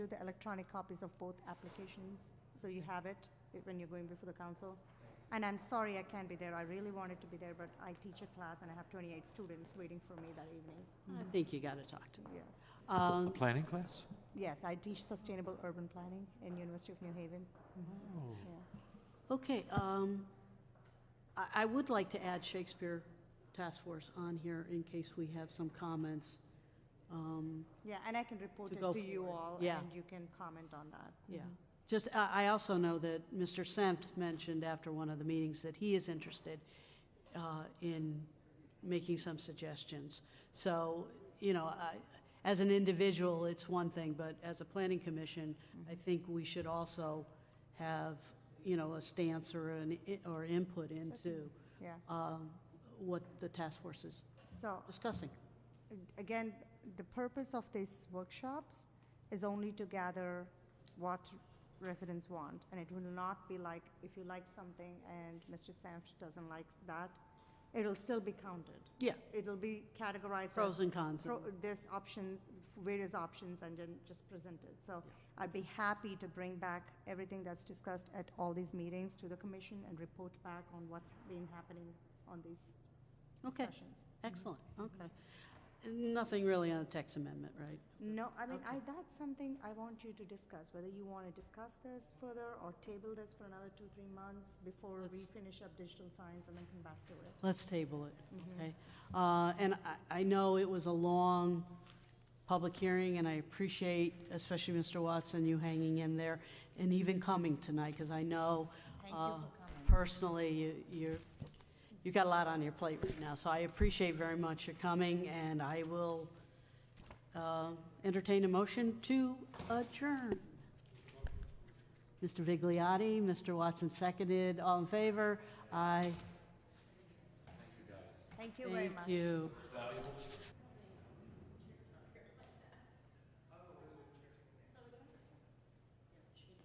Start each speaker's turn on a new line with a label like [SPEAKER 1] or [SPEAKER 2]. [SPEAKER 1] Do the electronic copies of both applications, so you have it eh, when you're going before the council. And I'm sorry I can't be there, I really wanted to be there, but I teach a class and I have 28 students waiting for me that evening,
[SPEAKER 2] I think you got to talk to them.
[SPEAKER 1] yes.
[SPEAKER 2] Um,
[SPEAKER 3] A planning class?
[SPEAKER 1] Yes, I teach sustainable urban planning in University of New Haven.
[SPEAKER 3] Oh.
[SPEAKER 1] Yeah.
[SPEAKER 2] Okay, um, I, I would like to add Shakespeare Task Force on here in case we have some comments. Um,
[SPEAKER 1] Yeah, and I can report
[SPEAKER 2] To
[SPEAKER 1] it
[SPEAKER 2] go
[SPEAKER 1] to you
[SPEAKER 2] forward.
[SPEAKER 1] all,
[SPEAKER 2] Yeah.
[SPEAKER 1] and you can comment on that. Mm-hmm.
[SPEAKER 2] yeah. Just, I, I also know that Mr. Sempt mentioned after one of the meetings that he is interested, uh, in making some suggestions. So, you know, I, as an individual, it's one thing, but as a planning commission, I think we should also have, you know, a stance or an, i- or input into,
[SPEAKER 1] Yeah,
[SPEAKER 2] um, what the task force is
[SPEAKER 1] so
[SPEAKER 2] discussing.
[SPEAKER 1] again, the purpose of these workshops is only to gather what residents want, and it will not be like, if you like something and Mr. Sanford doesn't like that, it'll still be counted.
[SPEAKER 2] Yeah,
[SPEAKER 1] It'll be categorized as.
[SPEAKER 2] pros and cons.
[SPEAKER 1] pro- There's options, various options, and then just present it. So I'd be happy to bring back everything that's discussed at all these meetings to the commission and report back on what's been happening on these
[SPEAKER 2] Okay.
[SPEAKER 1] discussions.
[SPEAKER 2] Excellent, okay. Nothing really on the text amendment, right?
[SPEAKER 1] No, I mean, I, that's something I want you to discuss, whether you want to discuss this further or table this for another two, three months before we
[SPEAKER 2] Let's-
[SPEAKER 1] finish up digital science and then come back to it.
[SPEAKER 2] Let's table it,
[SPEAKER 1] Mm-hmm.
[SPEAKER 2] okay? Uh, And I- I know it was a long public hearing, and I appreciate, especially Mr. Watson, you hanging in there and even coming tonight, because I know
[SPEAKER 1] Thank you
[SPEAKER 2] uh,
[SPEAKER 1] for coming.
[SPEAKER 2] personally, you- you're, you got a lot on your plate right now, so I appreciate very much your coming, and I will uh, entertain a motion to adjourn. Mr. Vigliotti, Mr. Watson seconded, all in favor? Aye.
[SPEAKER 1] Thank you very
[SPEAKER 2] Thank
[SPEAKER 1] much.
[SPEAKER 2] you.